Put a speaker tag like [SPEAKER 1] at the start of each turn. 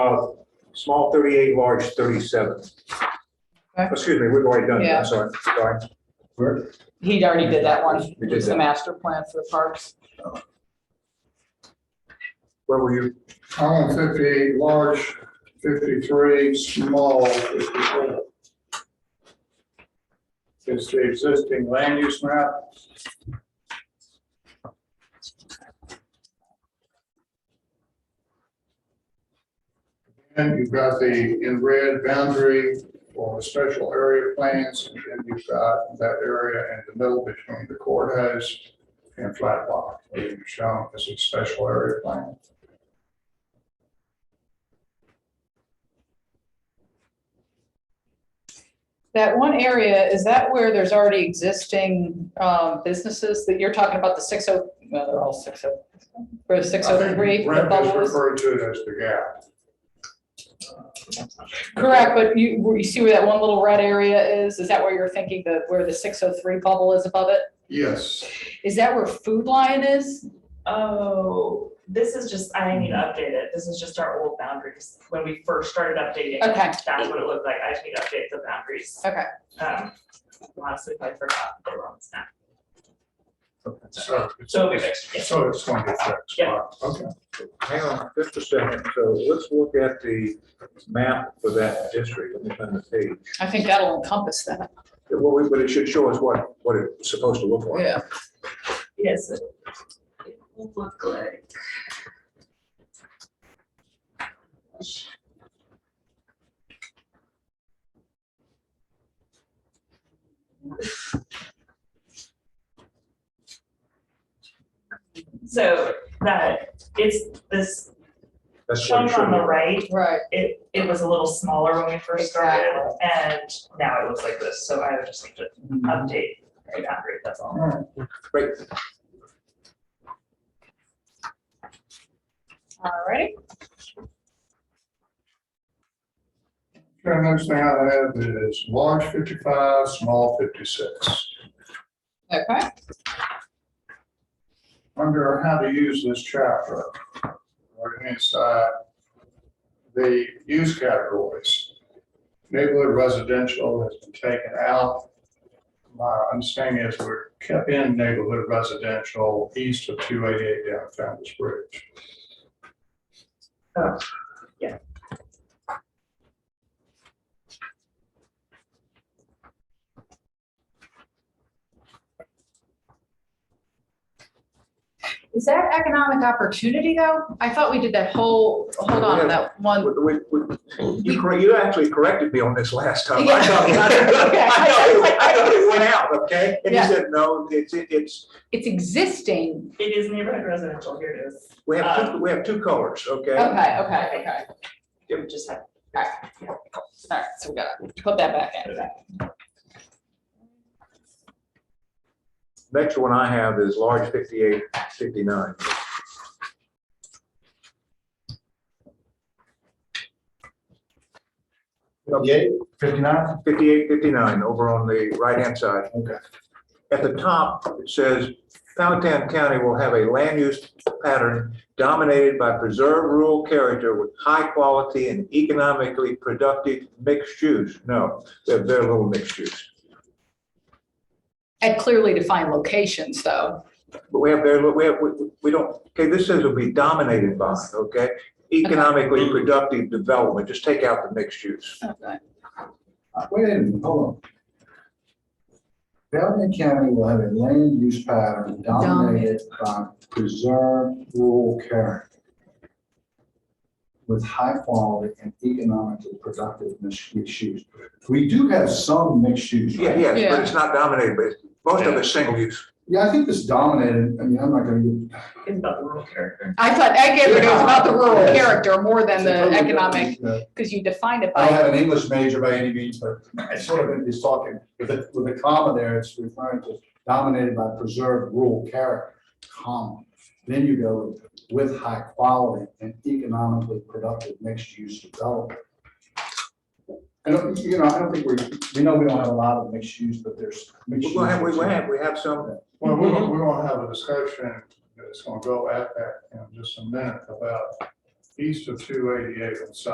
[SPEAKER 1] Uh, Small 38, large 37.
[SPEAKER 2] Okay.
[SPEAKER 1] Excuse me, we've already done it,
[SPEAKER 2] Yeah.
[SPEAKER 1] I'm sorry, sorry. Where?
[SPEAKER 2] He already did that one,
[SPEAKER 1] We did
[SPEAKER 2] it's the
[SPEAKER 1] that.
[SPEAKER 2] master plan for the parks.
[SPEAKER 1] Where were you?
[SPEAKER 3] I'm on Uh, fifty-eight, large fifty-three, small fifty-four. It's the existing land use map. And you've got the in red boundary for the special area plans, and then you've got that area in the middle between the courthouse and flat block, where you're shown as a special area plan.
[SPEAKER 2] That one area, is that where there's already existing um, businesses that you're talking about, the six oh, well, they're all six oh, or the six
[SPEAKER 3] I
[SPEAKER 2] oh
[SPEAKER 3] think
[SPEAKER 2] three?
[SPEAKER 3] Brent is referred to it as the gap.
[SPEAKER 2] Correct, but you, where you see where that one little red area is? Is that where you're thinking that where the six oh three bubble is above it?
[SPEAKER 3] Yes,
[SPEAKER 2] Is that where Food Lion is?
[SPEAKER 4] Oh, this is just, I need to update it. This is just our old boundaries. When we first started updating, it,
[SPEAKER 2] Okay.
[SPEAKER 4] that's what it looked like. I just need to update the boundaries.
[SPEAKER 2] Okay.
[SPEAKER 4] Um, honestly, I forgot they were on this map.
[SPEAKER 3] so it's,
[SPEAKER 4] So we fixed it.
[SPEAKER 3] so it's going to fix.
[SPEAKER 4] Yeah.
[SPEAKER 3] Okay.
[SPEAKER 1] Hang on just a second, so let's look at the map for that district, let me find the page.
[SPEAKER 2] I think that'll encompass that.
[SPEAKER 1] Well, we- But it should show us what, what it's supposed to look like.
[SPEAKER 4] Yes. It it will look like. So that, it's this
[SPEAKER 1] That's what
[SPEAKER 4] shown
[SPEAKER 1] it should
[SPEAKER 4] on the
[SPEAKER 1] look like.
[SPEAKER 4] right,
[SPEAKER 2] Right.
[SPEAKER 4] it, it was a little smaller when we first started, and now it looks like this, so I would just need to update, and upgrade, that's all.
[SPEAKER 1] Great.
[SPEAKER 2] All righty.
[SPEAKER 3] And next thing I have is large fifty-five, small fifty-six.
[SPEAKER 2] Okay.
[SPEAKER 3] Under how to use this chapter, right hand side, the use categories. Neighborhood residential has been taken out. My understanding is we're kept in neighborhood residential east of two eighty-eight down Founder's Bridge.
[SPEAKER 2] Is that economic opportunity though? I thought we did that whole, hold on, that one.
[SPEAKER 1] We- we- we- You cor- you actually corrected me on this last time. I thought, I
[SPEAKER 2] Yeah.
[SPEAKER 1] thought it- I thought it went out, okay? And you
[SPEAKER 2] Yeah.
[SPEAKER 1] said, no, it's, it- it's,
[SPEAKER 2] It's existing.
[SPEAKER 4] It is neighborhood residential, here it is,
[SPEAKER 1] we have, two we have two colors,
[SPEAKER 2] Okay,
[SPEAKER 1] okay?
[SPEAKER 2] okay, okay.
[SPEAKER 4] it just had.
[SPEAKER 2] All right, so we gotta put that back in.
[SPEAKER 1] Next one I have is large 58, 59.
[SPEAKER 5] Fifty-eight, fifty-nine?
[SPEAKER 1] 58, 59, over on the right-hand side.
[SPEAKER 5] Okay.
[SPEAKER 1] At the top, it says, Powhatan County will have a land use pattern dominated by preserved rural character with high-quality and economically productive mixed use. No, they're very little mixed use.
[SPEAKER 2] At clearly defined locations though.
[SPEAKER 1] But we have very, little- we have, we- we don't, okay, this says will be dominated by, okay? Economically productive development, just take out the mixed use.
[SPEAKER 2] Okay.
[SPEAKER 5] Uh, Wait a minute, hold on. Belknap County will have a land use pattern dominated by preserved rural character with high quality and economically productive mixed use. We do have some mixed use.
[SPEAKER 1] Yeah,
[SPEAKER 5] right?
[SPEAKER 1] yes, but it's not dominated, but it's- most of
[SPEAKER 4] Yeah.
[SPEAKER 1] it's single use.
[SPEAKER 5] Yeah, I think this dominated, I mean, I'm not gonna. get-
[SPEAKER 4] It's about the rural character.
[SPEAKER 2] I thought, I get it was about the rural
[SPEAKER 5] Yeah.
[SPEAKER 2] character more than the
[SPEAKER 5] Totally different.
[SPEAKER 2] economic,
[SPEAKER 5] Yeah.
[SPEAKER 2] because you defined it
[SPEAKER 5] I don't
[SPEAKER 2] by,
[SPEAKER 5] have an English major by any means, but I sort of is talking, with the, with the comma there, it's referring to dominated by preserved rural character, comma. Then you go with high quality and economically productive mixed-use development. I don't, you know, I don't think we're, we know we don't have a lot of mixed use, but there's. mixed
[SPEAKER 1] We have, we
[SPEAKER 5] use.
[SPEAKER 1] have, we have some
[SPEAKER 3] Well, we're, gonna- we're gonna have a discussion that's gonna go at that in just a minute about east of two eighty-eight and south.